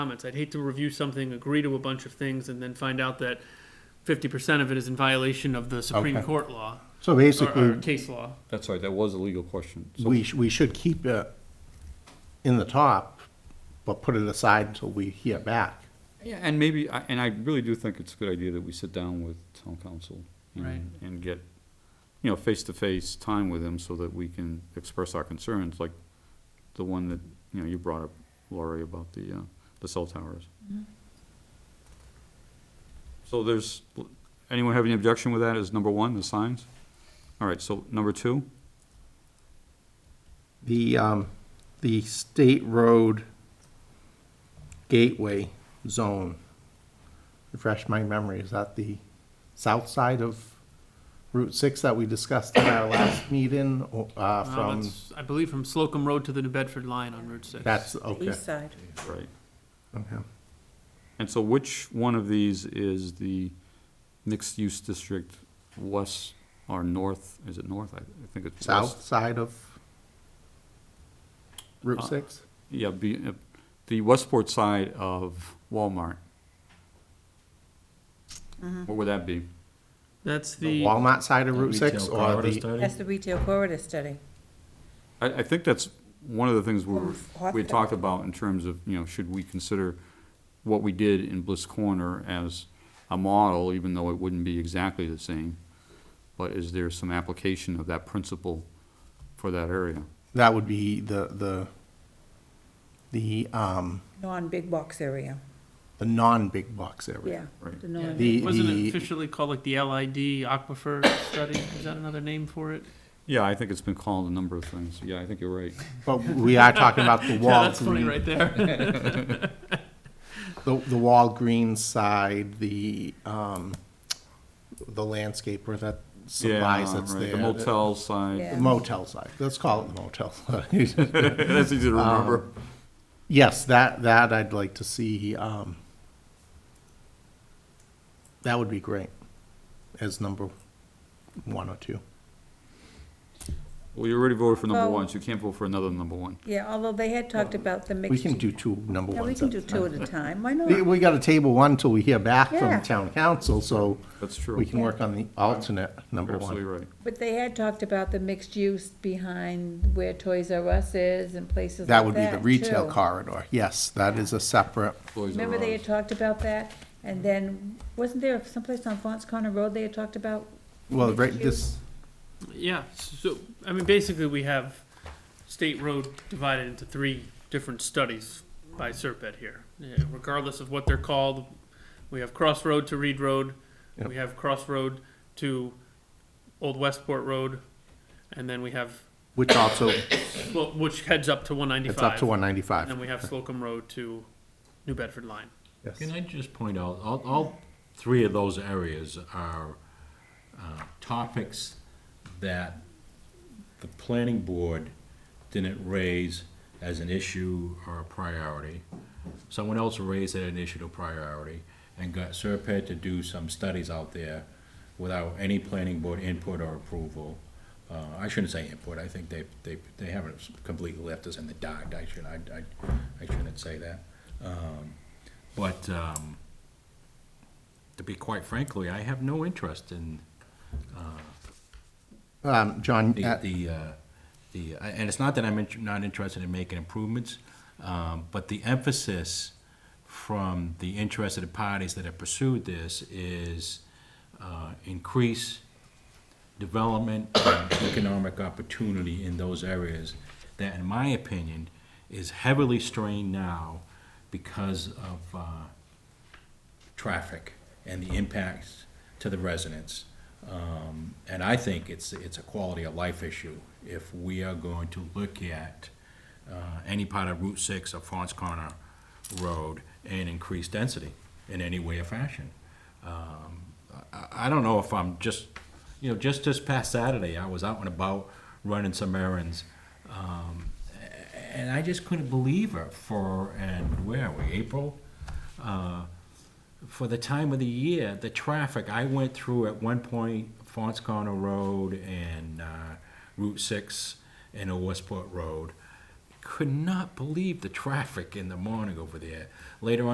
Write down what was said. comments. I'd hate to review something, agree to a bunch of things, and then find out that fifty percent of it is in violation of the Supreme Okay. Court law So or- or uh, basically, case law. That's right, that was a legal question. So- we, sh- we should keep it in the top, but put it aside until we hear back. Yeah, and maybe, I- and I really do think it's a good idea that we sit down with town council. and- Right. And get, you know, face-to-face time with them so that we can express our concerns, like the one that, you know, you brought up, Laurie, about the, uh, the cell towers. So there's, anyone have any objection with that as number one, the signs? All right, so number two? The, um, the state road gateway zone, refresh my memory, is that the south side of Route Six that we discussed in our last meeting, or, uh, Uh, from, that's- I believe from Slocum Road to the New Bedford line on Route Six. that's, okay, East side. Right. okay. And so which one of these is the mixed-use district west or north, is it north? I I think it's west. South side of Route Uh, Six? Yeah, be, uh, the Westport side of Walmart. What would that be? That's The the, Walmart side of Route Six, Retail or corridor the study? That's the retail corridor study. I, I think that's one of the things we were, Or we had talked about in terms of, you know, should we consider what we did in Bliss Corner as a model, even though it wouldn't be exactly the same? But is there some application of that principle for that area? That would be the, the, the, um, Non-big box area, the non-big box area. yeah. Right. The yeah, non- The- wasn't it the- officially called like the LID Aquifer Study? Is that another name for it? Yeah, I think it's been called a number of things. Yeah, I think you're right. But we are talking about the Yeah, that's funny Walgreens, right there. the, the Walgreens side, the, um, the landscaper that supplies Yeah, that's right, there. The motel side. The Yeah. Motel side, let's call it the motel side. That's easy to Um, remember. Yes, that, that I'd like to see, um, that would be great as number one or two. Well, you already voted for number Well- one, so you can't vote for another number one. Yeah, although they had talked about the mixed. We can do two number Yeah, we ones. can at do a two at a time, why We, not? we got a table one till we hear back Yeah. from town council, so That's we true. can work on the alternate number You're absolutely one. right. But they had talked about the mixed use behind where Toys R Us is and places like that, That would be the retail too. corridor, yes, that is a separate, Boys are Remember they had ours. talked about that? And then, wasn't there someplace on Fons Corner Road they had talked about? well, right, Mixed this, Yeah, so, I mean, basically, we have state road divided into three different studies by Serpet here. Yeah, Regardless of what they're called, we have Cross Road to Reed Road, we have Cross Road to Old Westport Road, and then we have, which also, well, which heads up to one ninety-five. it's up to one And then ninety-five, we have Slocum Road to New Bedford Line. yes. Can I just point out, all, all three of those areas are uh, topics that the planning board didn't raise as an issue or a priority. Someone else raised it an issue or priority and got Serpent to do some studies out there without any planning board input or approval. Uh, I shouldn't say input, I think they, they, they haven't completely left us in the dark, I should, I, I, I shouldn't say that. Um, But, um, to be quite frankly, I have no interest in Um, John, the, uh, the, uh, the, and it's not that I'm int- not interested in making improvements, um, but the emphasis from the interested parties that have pursued this is uh, increase development and economic opportunity in those areas that, in my opinion, is heavily strained now because of uh, traffic and the impacts to the residents. Um, And I think it's, it's a quality of life issue if we are going to look at uh, any part of Route 6 or Fons Corner Road and increase density in any way or fashion. Um, I, I don't know if I'm just, you know, just this past Saturday, I was out and about running some errands. um, a- And I just couldn't believe it for, and where are we, April? Uh, for the time of the year, the traffic, I went through at one point Fons Corner Road and uh, Route 6 and Old Westport Road. could not believe the traffic in the morning over there. Later on